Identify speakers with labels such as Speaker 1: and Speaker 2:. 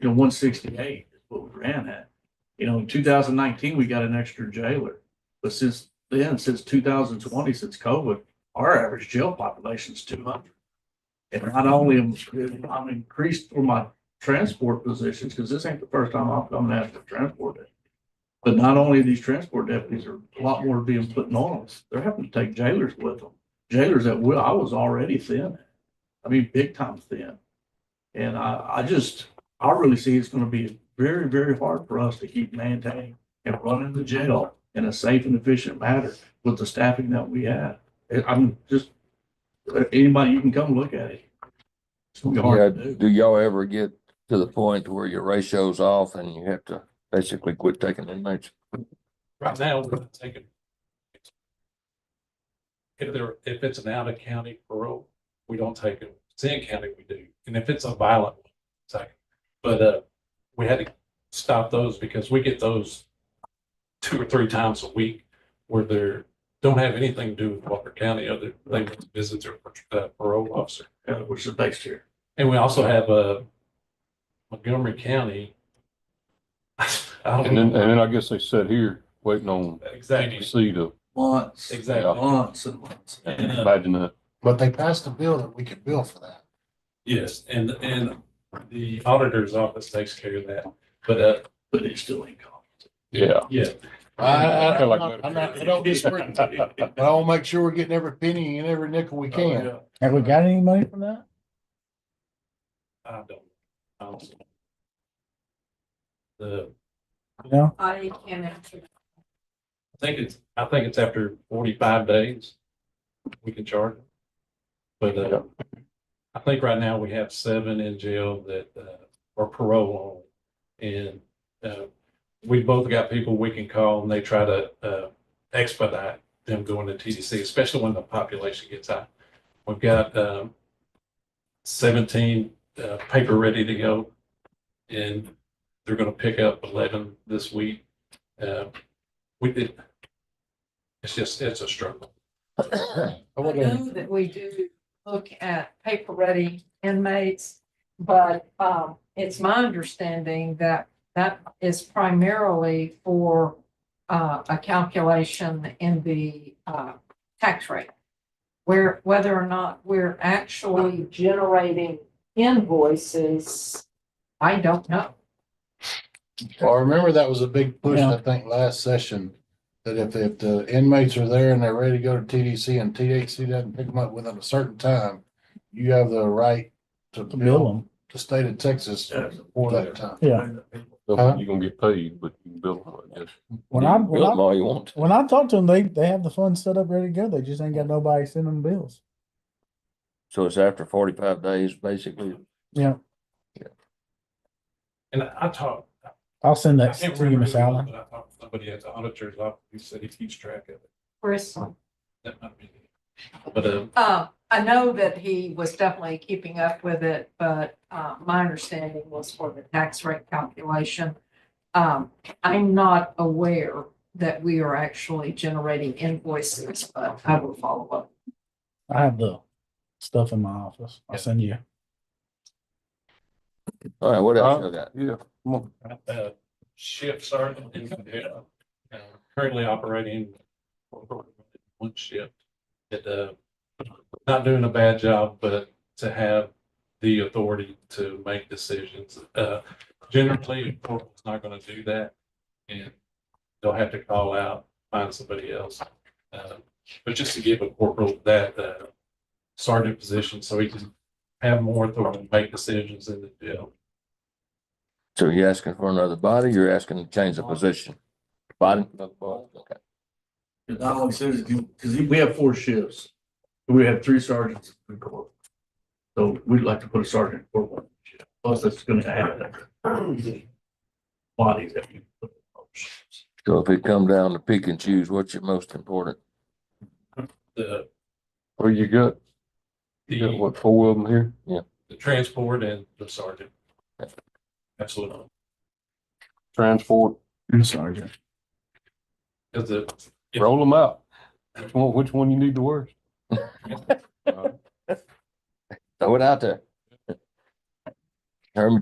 Speaker 1: you know, one sixty-eight is what we ran at. You know, in two thousand nineteen, we got an extra jailer, but since then, since two thousand twenty, since COVID, our average jail population is two hundred. And not only am, I'm increased for my transport positions, because this ain't the first time I'm coming after transport. deputy. But not only these transport deputies are a lot more being put on us, they're having to take jailers with them. Jailers that will, I was already thin. I mean, big time thin. And I, I just, I really see it's gonna be very, very hard for us to keep maintaining and running the jail in a safe and efficient manner with the staffing that we have. I- I'm just, anybody, you can come look at it. It's gonna be
Speaker 2: Yeah,
Speaker 1: hard to do.
Speaker 2: do y'all ever get to the point where your ratio's off and you have to basically quit taking inmates?
Speaker 3: Right now, we're gonna take it. If there, if it's an out of county parole, we don't take it. If It's in county, we do. And if it's a violent one, it's like, but, uh, we had to stop those because we get those two or three times a week where they're, don't have anything to do with Walker County, other, they went to visit their uh, parole officer.
Speaker 1: Uh, which is based here.
Speaker 3: And we also have, uh, Montgomery County. I don't
Speaker 4: And then, uh, and
Speaker 3: know.
Speaker 4: then I guess they sat here waiting on
Speaker 3: Exactly,
Speaker 4: see to
Speaker 1: Months.
Speaker 3: exactly.
Speaker 1: Months and months.
Speaker 3: And, uh,
Speaker 4: imagine that.
Speaker 5: But they passed a bill that we could bill for that.
Speaker 3: Yes, and, and the auditor's office takes care of that, but, uh,
Speaker 1: But it still ain't gone.
Speaker 4: Yeah.
Speaker 3: yeah.
Speaker 5: I, I,
Speaker 4: Kinda
Speaker 5: I'm
Speaker 4: like
Speaker 5: not, I'm not, I
Speaker 4: Medicare.
Speaker 5: don't disagree, but I'll make sure we're getting every penny and every nickel we can.
Speaker 6: Have we got any money from that?
Speaker 3: I don't, I don't. The,
Speaker 6: No?
Speaker 7: I can't answer. that.
Speaker 3: I think it's, I think it's after forty-five days, we can charge them. But, uh, I think right now we have seven in jail that, uh, are parole only. And, uh, we both got people we can call and they try to, uh, expedite them going to TDC, especially when the population gets high. We've got, um, seventeen, uh, paper ready to go. And they're gonna pick up eleven this week. Uh, we did. It's just, it's a struggle.
Speaker 5: I
Speaker 7: I
Speaker 5: wonder-
Speaker 7: know that we do look at paper ready inmates, but um, it's my understanding that that is primarily for uh, a calculation in the uh, tax rate. Where, whether or not we're actually generating invoices, I don't know.
Speaker 5: Well, I remember that was a big push, I think, last session, that if, if the inmates are there and they're ready to go to TDC and THC doesn't pick them up within a certain time, you have the right to bill
Speaker 6: Bill
Speaker 5: the state of Texas for that time.
Speaker 6: them, yeah.
Speaker 5: Huh?
Speaker 4: You're gonna get paid, but you can bill them, I guess.
Speaker 6: When I,
Speaker 2: Bill
Speaker 6: when
Speaker 2: them
Speaker 6: I,
Speaker 2: all you want.
Speaker 6: when I talk to them, they, they have the funds set up ready to go. They just ain't got nobody sending them bills.
Speaker 2: So it's after forty-five days, basically.
Speaker 3: And I talked.
Speaker 6: I'll send
Speaker 3: I
Speaker 6: that
Speaker 3: can't
Speaker 6: to you,
Speaker 3: remember
Speaker 6: Miss
Speaker 3: who it was,
Speaker 6: Allen.
Speaker 3: but I talked to Somebody at the auditor's office, who said he keeps track of it.
Speaker 7: Chris,
Speaker 3: That might be. it. But, uh,
Speaker 7: uh, I know that he was definitely keeping up with it, but uh, my understanding was for the tax rate calculation. Um, I'm not aware that we are actually generating invoices, but I will follow up.
Speaker 6: I have the stuff in my office. I'll send you.
Speaker 2: All right, what else you got?
Speaker 4: Yeah. come on.
Speaker 3: uh, shift sergeant is, uh, currently operating one shift. It, uh, not doing a bad job, but to have the authority to make decisions. Uh, generally, a corporal's not gonna do that. And they'll have to call out, find somebody else. Uh, But just to give a corporal that, uh, sergeant position, so he can have more authority to make decisions in the jail.
Speaker 2: So you're asking for another body, you're asking to change the position? Body? Okay.
Speaker 1: Cause not only says, cause we have four shifts. We have three sergeants. and three corporals. So we'd like to put a sergeant for one shift, plus that's gonna add. Bodies that you. put in those shifts.
Speaker 2: So if it come down to pick and choose, what's your most important?
Speaker 3: The,
Speaker 4: Well, you got, you got
Speaker 3: the,
Speaker 4: what, four of them here?
Speaker 3: the transport and the sergeant. Absolutely.
Speaker 4: Transport,
Speaker 6: Sergeant.
Speaker 3: Cause the, Yeah.
Speaker 4: roll them out. Which one, which one you need the worst?
Speaker 2: Throw it out there. Herman,